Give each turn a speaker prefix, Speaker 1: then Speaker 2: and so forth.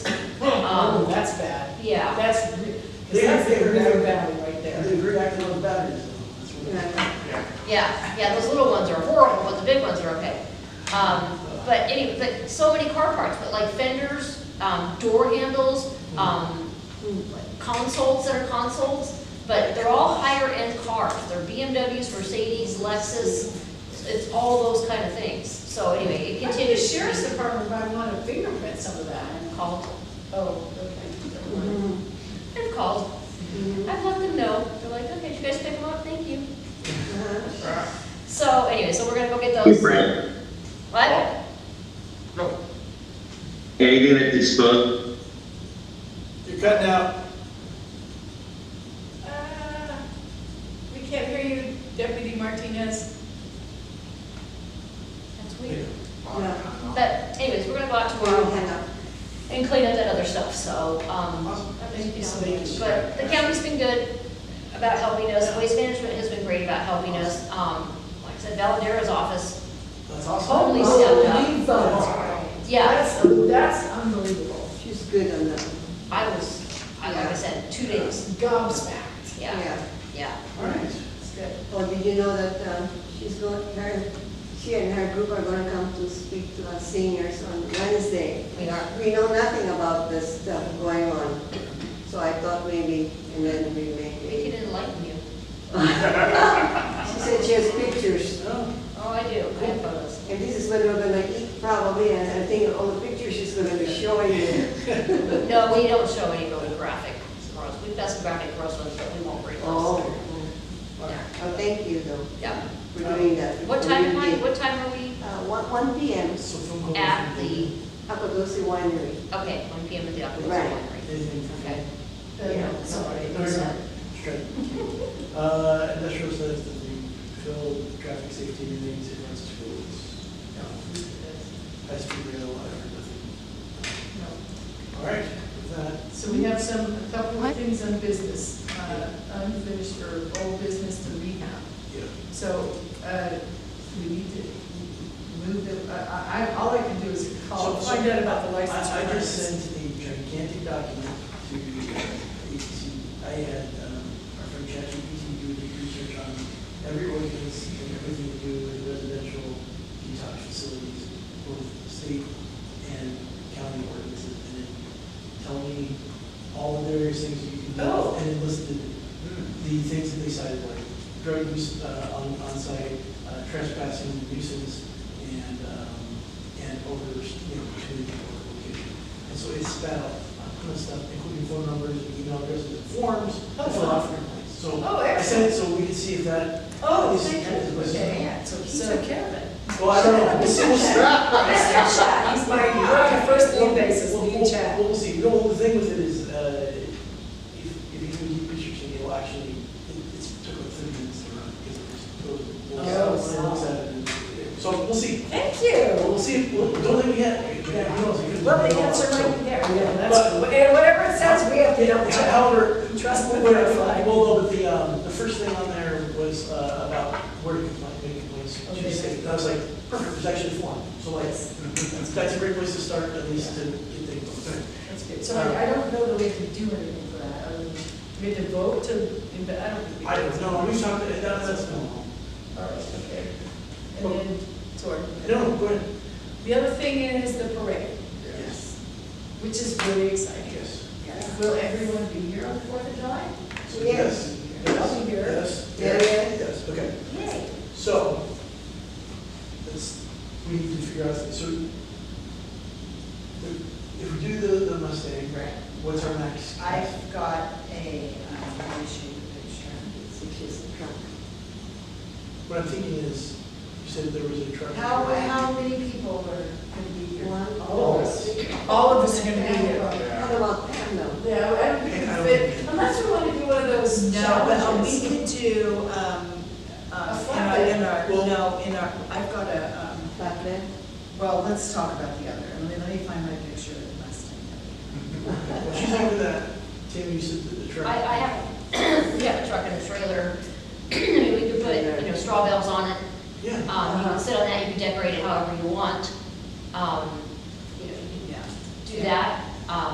Speaker 1: Um, yeah.
Speaker 2: Oh, That's, re- 'cause
Speaker 3: They
Speaker 2: that's the
Speaker 3: figured out-
Speaker 2: river valley right there.
Speaker 3: There's a great act on batteries. That's what it is.
Speaker 1: Yeah, yeah, those little ones are horrible, but the big ones are okay. Um, but anyway, but so many car parts, but like fenders, um, door handles, um, consoles that are consoles, but they're all higher-end cars. They're BMWs, Mercedes, Lexus, it's all those kind of things. So anyway, it
Speaker 2: I think the
Speaker 1: continues.
Speaker 2: sheriff's department might want to fingerprint some of that.
Speaker 1: Called,
Speaker 2: Oh, okay.
Speaker 4: Mhm.
Speaker 1: they've called.
Speaker 4: Mhm.
Speaker 1: I've let them know. They're like, okay, did you guys pick them up? Thank you.
Speaker 4: Uh-huh.
Speaker 1: So anyway, so we're gonna go get
Speaker 5: Hey,
Speaker 1: those.
Speaker 5: Brad,
Speaker 1: What?
Speaker 5: anything that is spoke,
Speaker 6: You're cutting out.
Speaker 2: Uh, We can't hear you, Deputy Martinez.
Speaker 1: That's weird.
Speaker 4: Yeah.
Speaker 1: But anyways, we're gonna go out
Speaker 4: Well,
Speaker 1: tomorrow
Speaker 4: hang up.
Speaker 1: and clean up that other stuff, so, um,
Speaker 2: Thank you so much.
Speaker 1: but the county's been good about helping us, waste management has been great about helping us, um, like I said, Valadara's office,
Speaker 6: That's awesome.
Speaker 1: Totally
Speaker 2: Oh,
Speaker 1: stepped up.
Speaker 2: leave those.
Speaker 1: yeah,
Speaker 2: That's, um, that's unbelievable.
Speaker 4: She's good on that.
Speaker 1: I was, I, like I said, two days,
Speaker 2: Gobsmacked.
Speaker 1: yeah, yeah.
Speaker 4: All right.
Speaker 2: It's good.
Speaker 4: Well, did you know that um, she's going, her, she and her group are going to come to speak to us seniors on Wednesday.
Speaker 1: We are.
Speaker 4: We know nothing about this stuff going on, so I thought maybe, and then we
Speaker 1: We
Speaker 4: may.
Speaker 1: could enlighten you.
Speaker 4: She said she has pictures,
Speaker 1: Oh, I do, I have photos.
Speaker 4: and this is when we're going to eat probably, and I think all the pictures she's going to be showing you.
Speaker 1: No, we don't show any really graphic gross, we've got some graphic gross ones, but we won't bring those.
Speaker 4: Oh,
Speaker 1: Yeah,
Speaker 4: oh, thank you though
Speaker 1: yeah.
Speaker 4: for doing that.
Speaker 1: What time am I, what time are we
Speaker 4: Uh, one, one P M,
Speaker 6: So from-
Speaker 1: at the,
Speaker 4: Apagosi Winery.
Speaker 1: okay, one P M at the Aqua
Speaker 4: Right.
Speaker 1: Winery?
Speaker 6: Anything from-
Speaker 1: Okay.
Speaker 2: The- Uh, Sorry.
Speaker 6: No, you're not. Straight. Uh, industrial says that we fill traffic safety meetings in our schools. High speed rail, I heard nothing.
Speaker 2: No.
Speaker 6: All right, with that,
Speaker 2: So we have some, a couple of things on business, uh, unfinished or old business to rehab.
Speaker 6: yeah.
Speaker 2: So uh, we need to move the, I, I, all I can do is call,
Speaker 6: So- so-
Speaker 2: find out about the
Speaker 6: I
Speaker 2: license.
Speaker 6: I just
Speaker 2: plate.
Speaker 6: sent a gigantic document to, uh, to- I had um, our friend ChatGPT do a deep research on every ordinance and everything to do with residential detox facilities, both state and county ordinances, and then tell me all the various things you can do.
Speaker 2: Oh. Hmm.
Speaker 6: And it listed the things that they cited, like drug use uh, on onsite, uh, trespassing, nuisance, and, um, and over, you know, community or location. And so it's spat out a ton of stuff, including phone numbers, and email addresses, and forms, to fill out for complaints. So
Speaker 2: Oh,
Speaker 6: I
Speaker 2: excellent.
Speaker 6: sent it so we could see if that,
Speaker 2: Oh,
Speaker 6: Is-
Speaker 2: thank you.
Speaker 6: is-
Speaker 2: Okay, yeah, so he took care of it.
Speaker 6: well, I don't know, we'll see, we'll see.
Speaker 2: He's my, you the first
Speaker 6: We'll-
Speaker 2: name basis,
Speaker 6: we'll-
Speaker 2: new
Speaker 6: we'll-
Speaker 2: chat.
Speaker 6: We'll see, no, the thing with it is, uh, if, if you do deep researching, it'll actually, it- it's took like thirty minutes to run, because it was.
Speaker 2: Oh,
Speaker 6: it looks at it and- So we'll see,
Speaker 2: Thank
Speaker 6: Well,
Speaker 2: you.
Speaker 6: we'll see, we'll, don't let me get, yeah, who knows? it could-
Speaker 2: Well, the answer might be there. Yeah, that's-
Speaker 6: But-
Speaker 2: And whatever it says, we have to double
Speaker 6: Yeah,
Speaker 2: check.
Speaker 6: However,
Speaker 2: Trust
Speaker 6: trust
Speaker 2: me,
Speaker 6: me,
Speaker 2: we're gonna fly.
Speaker 6: well, no, but the, um, the first thing on there was, uh, about where to complain, make complaints, to the
Speaker 2: Okay.
Speaker 6: state. And I was like, perfect, there's actually a form, so like, that's, that's a great place to start, at least to get things done.
Speaker 2: That's good. So I, I don't know that we have to do anything for that, other than we have to vote to, inve- I don't think we.
Speaker 6: I don't know, we talked, that, that's, no,
Speaker 2: All right, okay. And then, sorry.
Speaker 6: no, go ahead.
Speaker 2: The other thing is the parade,
Speaker 6: Yes.
Speaker 2: which is really exciting.
Speaker 6: Yes.
Speaker 2: Will everyone be here on Fourth of July?
Speaker 6: Yes.
Speaker 2: I'll be here.
Speaker 6: Yes.
Speaker 4: Yeah, yeah.
Speaker 6: Yes, okay.
Speaker 2: Yay.
Speaker 6: So, let's, we need to figure out, so, if if we do the, the Mustang,
Speaker 7: Right.
Speaker 6: what's our next?
Speaker 7: I've got a, um, let me show you the picture.
Speaker 4: It's a kiss and truck.
Speaker 6: What I'm thinking is, you said there was a truck.
Speaker 7: How, how many people are gonna be here?
Speaker 4: One,
Speaker 2: All of us. All of us are Oh, gonna be here.
Speaker 4: What about them though?
Speaker 2: No, I don't think we can fit, unless we wanna do one of those
Speaker 7: No, but uh, we
Speaker 2: challenges.
Speaker 7: could do, um, uh,
Speaker 2: A
Speaker 7: in our- in our,
Speaker 6: flatbed.
Speaker 7: no, in our, I've got a, um,
Speaker 4: Back then?
Speaker 7: well, let's talk about the other. Let me, let me find my picture of the Mustang.
Speaker 6: What you think of that, Tim, you said that the truck.
Speaker 1: I, I have, we have a truck and a trailer, I mean, we could put, you know, straw bales on it,
Speaker 6: Yeah,
Speaker 1: um, you can sit on that, you can decorate it however you want. Um,